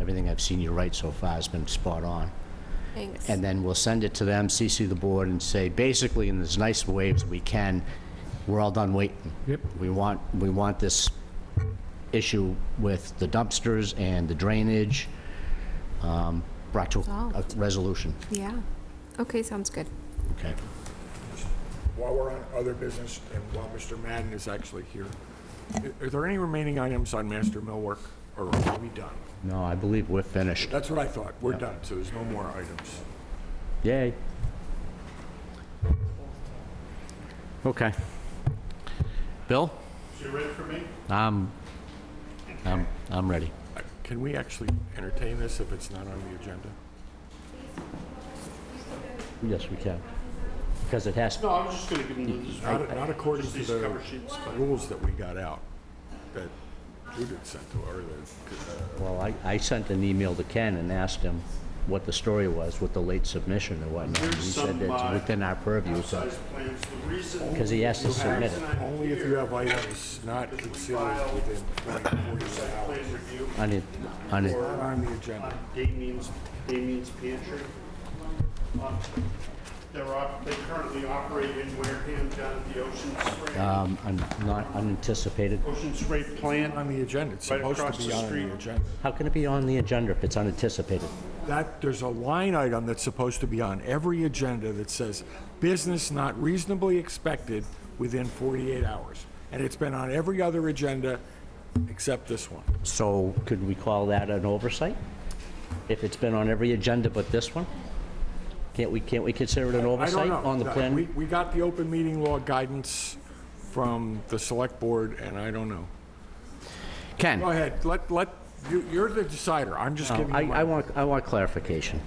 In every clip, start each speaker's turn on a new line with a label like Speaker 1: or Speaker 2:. Speaker 1: Everything I've seen you write so far has been spot on.
Speaker 2: Thanks.
Speaker 1: And then we'll send it to them, CC the board, and say, basically, in as nice ways we can, we're all done waiting.
Speaker 3: Yep.
Speaker 1: We want, we want this issue with the dumpsters and the drainage um, brought to a
Speaker 2: Solved.
Speaker 1: resolution.
Speaker 2: Yeah. Okay, sounds good.
Speaker 1: Okay.
Speaker 4: While we're on other business and while Mr. Madden is actually here, i- are there any remaining items on master millwork or are we done?
Speaker 1: No, I believe we're finished.
Speaker 4: That's what I thought. We're done, so there's no more items.
Speaker 1: Yay. Okay. Bill?
Speaker 5: You ready for me?
Speaker 1: I'm, I'm, I'm ready.
Speaker 4: Uh, Can we actually entertain this if it's not on the agenda?
Speaker 1: Yes, we can. Because it has,
Speaker 5: No, I was just gonna give him this.
Speaker 4: Not not according
Speaker 5: Just
Speaker 4: to
Speaker 5: these
Speaker 4: the
Speaker 5: cover sheets.
Speaker 4: the rules that we got out, that Judith sent to, or the,
Speaker 1: well, I, I sent an email to Ken and asked him what the story was with the late submission and whatnot. And He
Speaker 5: Here's
Speaker 1: said
Speaker 5: some,
Speaker 1: that's
Speaker 5: uh,
Speaker 1: within our purview, so,
Speaker 5: Size plans, the reason.
Speaker 1: 'Cause he has to
Speaker 5: the reason
Speaker 1: submit it.
Speaker 5: I'm
Speaker 4: only if you
Speaker 5: here
Speaker 4: have items not considered within 24
Speaker 5: is
Speaker 4: hours.
Speaker 5: Plan review
Speaker 1: on it, on it,
Speaker 4: Not on the agenda.
Speaker 5: on Damien's, Damien's pantry. Um, They're op, they currently operate in Wareham down at the Ocean Spray,
Speaker 1: um, un- not unanticipated.
Speaker 5: Ocean Spray plant.
Speaker 4: On the agenda, it's
Speaker 5: Right
Speaker 4: supposed
Speaker 5: across
Speaker 4: to be
Speaker 5: the
Speaker 4: on
Speaker 5: street.
Speaker 4: the agenda.
Speaker 1: How can it be on the agenda if it's unanticipated?
Speaker 4: That, there's a line item that's supposed to be on every agenda that says, "Business not reasonably expected within 48 hours." And it's been on every other agenda except this one.
Speaker 1: So could we call that an oversight? If it's been on every agenda but this one? Can't we, can't we consider it an
Speaker 4: I don't
Speaker 1: oversight
Speaker 4: know. Uh,
Speaker 1: on the plan?
Speaker 4: We, we got the open meeting law guidance from the select board, and I don't know.
Speaker 1: Ken?
Speaker 4: Go ahead, let, let, you- you're the decider, I'm just
Speaker 1: No,
Speaker 4: giving you
Speaker 1: I,
Speaker 4: my...
Speaker 1: I want, I want clarification.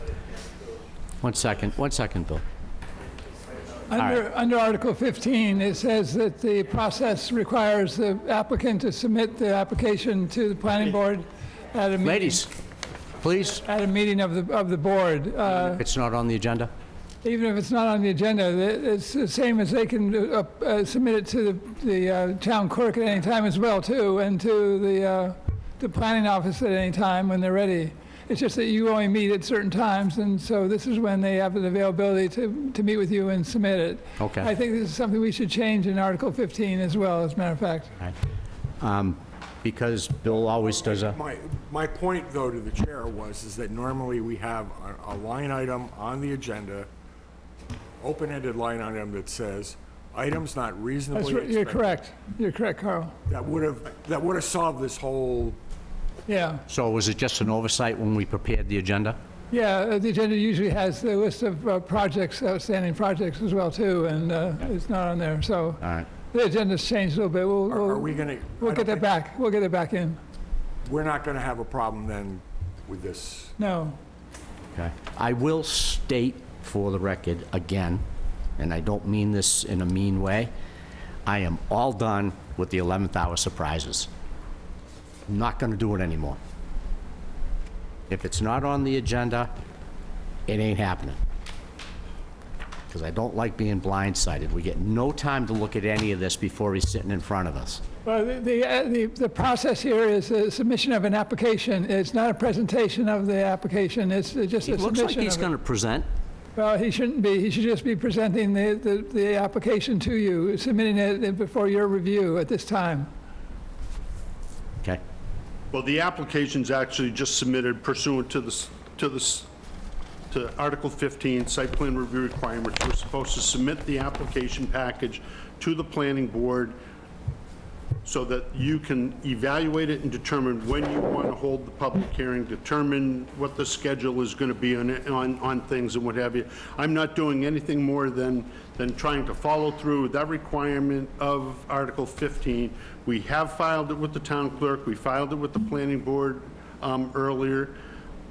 Speaker 1: One second, one second, Bill.
Speaker 6: Under, under Article 15, it says that the process requires the applicant to submit the application to the planning board at a meeting.
Speaker 1: Ladies, please,
Speaker 6: At a meeting of the, of the board. Uh,
Speaker 1: it's not on the agenda.
Speaker 6: Even if it's not on the agenda, the- it's the same as they can uh, uh, submit it to the, the uh, town clerk at any time as well, too, and to the, uh, the planning office at any time when they're ready. It's just that you only meet at certain times, and so this is when they have the availability to, to meet with you and submit it.
Speaker 1: Okay.
Speaker 6: I think this is something we should change in Article 15 as well, as a matter of fact.
Speaker 1: Um, Because Bill always does a,
Speaker 4: My, my point, though, to the chair was, is that normally we have a, a line item on the agenda, open-ended line item that says, items not
Speaker 6: That's,
Speaker 4: reasonably
Speaker 6: r-
Speaker 4: expected.
Speaker 6: you're correct. You're correct, Carl.
Speaker 4: That would have, that would have solved this whole,
Speaker 6: Yeah.
Speaker 1: so was it just an oversight when we prepared the agenda?
Speaker 6: Yeah, uh, the agenda usually has the list of uh, projects, outstanding projects as well, too, and uh, it's not on there, so.
Speaker 1: All right.
Speaker 6: The agenda's changed a little bit. We'll-
Speaker 4: are are
Speaker 6: We'll,
Speaker 4: we gonna?
Speaker 6: we'll
Speaker 4: I
Speaker 6: get
Speaker 4: don't
Speaker 6: that back. We'll get it back in.
Speaker 4: think- We're not gonna have a problem then with this.
Speaker 6: No.
Speaker 1: Okay. I will state for the record again, and I don't mean this in a mean way, I am all done with the 11th hour surprises. Not going to do it anymore. If it's not on the agenda, it ain't happening. Because I don't like being blindsided. We get no time to look at any of this before he's sitting in front of us.
Speaker 6: Well, the- the, uh, the, the process here is the submission of an application. It's not a presentation of the application. It's uh, just a
Speaker 1: It looks like
Speaker 6: submission
Speaker 1: he's
Speaker 6: of it.
Speaker 1: going to present.
Speaker 6: Well, he shouldn't be. He should just be presenting the, the, the application to you, submitting it uh, before your review at this time.
Speaker 1: Okay.
Speaker 5: Well, the application's actually just submitted pursuant to this, to this, to Article 15, Site Plan Review Requirements. We're supposed to submit the application package to the planning board so that you can evaluate it and determine when you want to hold the public hearing, determine what the schedule is going to be on, on, on things and what have you. I'm not doing anything more than, than trying to follow through with that requirement of Article 15. We have filed it with the town clerk, we filed it with the planning board um, earlier,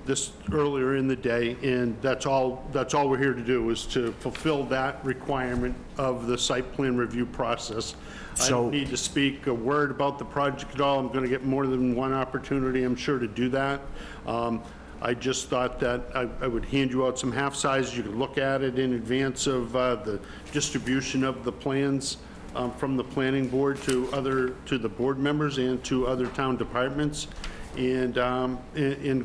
Speaker 5: this, earlier in the day, and that's all, that's all we're here to do, is to fulfill that requirement of the site plan review process. I
Speaker 1: So-
Speaker 5: don't need to speak a word about the project at all. I'm going to get more than one opportunity, I'm sure, to do that. Um, I just thought that I I would hand you out some half sizes. You could look at it in advance of uh, the distribution of the plans um, from the planning board to other, to the board members and to other town departments, and, um, and and